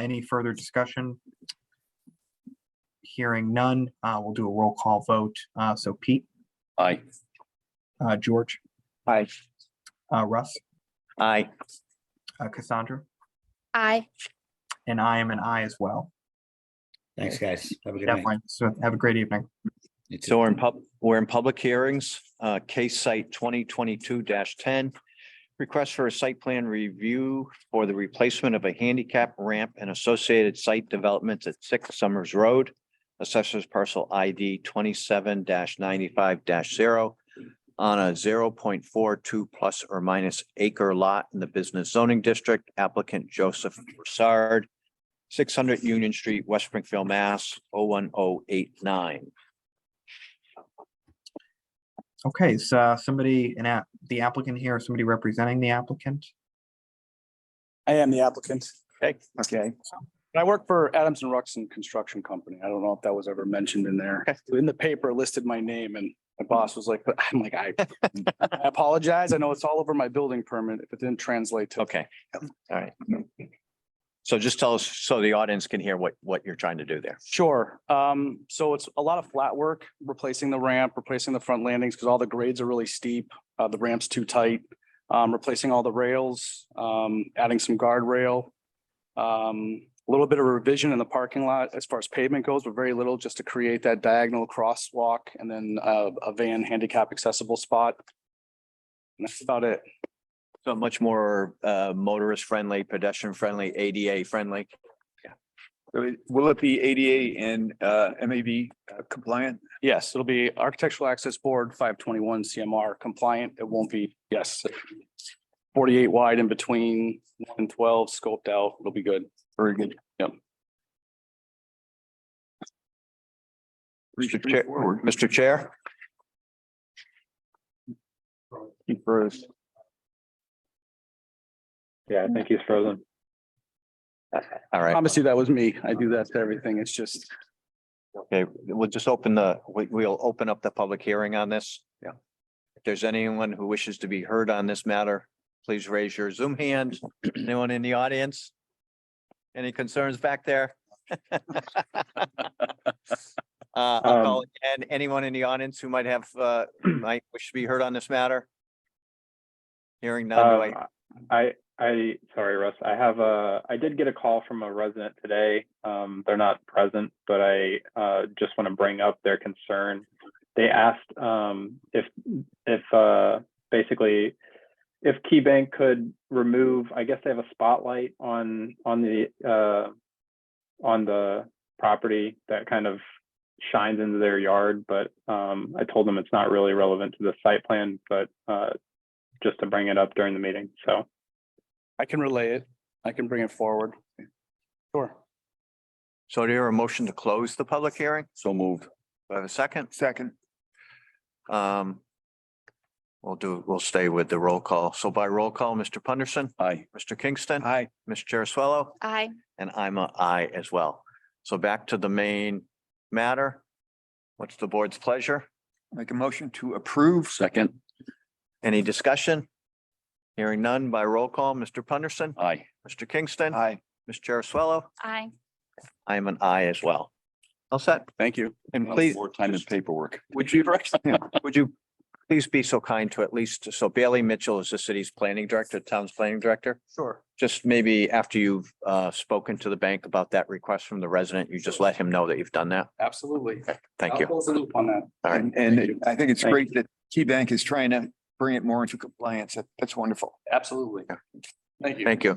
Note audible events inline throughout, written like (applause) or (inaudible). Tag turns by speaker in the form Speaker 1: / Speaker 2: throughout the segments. Speaker 1: Any further discussion? Hearing none, uh, we'll do a roll call vote. Uh, so Pete,
Speaker 2: Aye.
Speaker 1: uh, George,
Speaker 2: Aye.
Speaker 1: uh, Russ,
Speaker 2: Aye.
Speaker 1: uh, Cassandra,
Speaker 3: Aye.
Speaker 1: and I am an I as well.
Speaker 4: Thanks, guys. Have a good night.
Speaker 1: Definitely. So have a great evening.
Speaker 4: You too.
Speaker 2: So we're in pub, we're in public hearings, uh, case site twenty twenty-two ten. Request for a site plan review for the replacement of a handicap ramp and associated site developments at Six Summers Road. Assessors parcel ID twenty-seven ninety-five zero on a zero point four two plus or minus acre lot in the business zoning district. Applicant Joseph Broussard, six hundred Union Street, West Springfield, Mass. 01089.
Speaker 1: Okay, is uh, somebody, an app, the applicant here, somebody representing the applicant?
Speaker 5: I am the applicant.
Speaker 2: Okay.
Speaker 5: Okay. And I work for Adams and Ruxton Construction Company. I don't know if that was ever mentioned in there. In the paper listed my name and my boss was like, (laughs) I'm like, I I apologize. I know it's all over my building permit if it didn't translate to.
Speaker 2: Okay, all right. So just tell us, so the audience can hear what, what you're trying to do there.
Speaker 5: Sure. Um, so it's a lot of flat work, replacing the ramp, replacing the front landings, because all the grades are really steep. Uh, the ramp's too tight. Um, replacing all the rails, um, adding some guardrail. Um, a little bit of revision in the parking lot as far as pavement goes, but very little just to create that diagonal crosswalk and then uh, a van handicap accessible spot. And that's about it.
Speaker 2: So much more uh, motorist friendly, pedestrian friendly, ADA friendly.
Speaker 6: So it- Will it be ADA and uh, MAB uh, compliant?
Speaker 5: Yes, it'll be Architectural Access Board five twenty-one CMR compliant. It won't be, yes. Forty-eight wide in between, one and twelve scoped out. It'll be good. Very good. Yep.
Speaker 2: Mr. Chair, Mr. Chair,
Speaker 6: He froze. Yeah, I think he's frozen.
Speaker 2: all right,
Speaker 5: Promise you, that was me. I do that to everything. It's just,
Speaker 2: okay, we'll just open the, we, we'll open up the public hearing on this.
Speaker 6: Yeah.
Speaker 2: If there's anyone who wishes to be heard on this matter, please raise your Zoom hand. Anyone in the audience? Any concerns back there? (laughs) Uh,
Speaker 6: Um,
Speaker 2: I'll call again. anyone in the audience who might have, uh, might wish to be heard on this matter? Hearing none,
Speaker 6: Uh,
Speaker 2: do I,
Speaker 7: Um, I, I, sorry, Russ, I have a, I did get a call from a resident today. Um, they're not present, but I, uh, just want to bring up their concern. They asked, um, if, if, uh, basically, if KeyBank could remove, I guess they have a spotlight on, on the, uh, on the property that kind of shines into their yard, but, um, I told them it's not really relevant to the site plan, but, uh, just to bring it up during the meeting. So
Speaker 5: I can relay it. I can bring it forward. Sure.
Speaker 2: so do you hear a motion to close the public hearing?
Speaker 6: So moved.
Speaker 2: Do I have a second?
Speaker 6: Second.
Speaker 2: Um, we'll do, we'll stay with the roll call. So by roll call, Mr. Punderson,
Speaker 6: Aye.
Speaker 2: Mr. Kingston,
Speaker 6: Aye.
Speaker 2: Ms. Jerusalo,
Speaker 3: Aye.
Speaker 2: and I'm a I as well. So back to the main matter. What's the board's pleasure?
Speaker 6: Make a motion to approve. Second.
Speaker 2: Any discussion? Hearing none by roll call, Mr. Punderson,
Speaker 6: Aye.
Speaker 2: Mr. Kingston,
Speaker 6: Aye.
Speaker 2: Ms. Jerusalo,
Speaker 3: Aye.
Speaker 2: I am an I as well. All set.
Speaker 6: Thank you.
Speaker 2: And please,
Speaker 6: More time and paperwork.
Speaker 2: would you, would you please be so kind to at least, so Bailey Mitchell is the city's planning director, town's planning director.
Speaker 5: Sure.
Speaker 2: just maybe after you've uh spoken to the bank about that request from the resident, you just let him know that you've done that.
Speaker 5: Absolutely.
Speaker 2: Thank
Speaker 5: I'll
Speaker 2: you.
Speaker 5: Close the loop on that.
Speaker 2: All right.
Speaker 6: And, and I think it's
Speaker 5: Thank
Speaker 6: great that KeyBank is trying to bring it more into compliance. That- That's wonderful.
Speaker 5: Absolutely. Thank you.
Speaker 2: Thank you.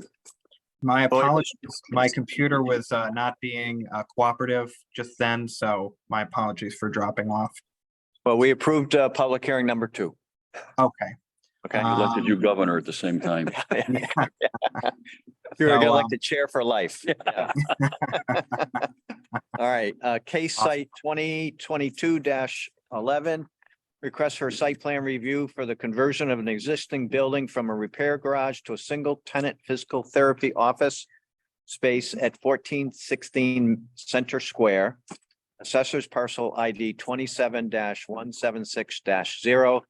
Speaker 1: My
Speaker 2: Well, it-
Speaker 1: apologies, my computer was uh, not being uh, cooperative just then, so my apologies for dropping off.
Speaker 2: Well, we approved uh public hearing number two.
Speaker 1: Okay.
Speaker 2: Okay.
Speaker 1: Uh, Elected
Speaker 6: you governor at the same time.
Speaker 2: You're gonna
Speaker 1: so,
Speaker 2: like
Speaker 1: um,
Speaker 2: the chair for life. Yeah. All right, uh case site twenty twenty-two eleven. Request for a site plan review for the conversion of an existing building from a repair garage to a single tenant physical therapy office. Space at fourteen sixteen Center Square. Assessors parcel ID twenty-seven one seven six zero.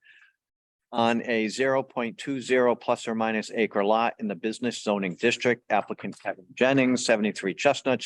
Speaker 2: on a zero point two zero plus or minus acre lot in the business zoning district applicant Kevin Jennings, seventy-three Chestnut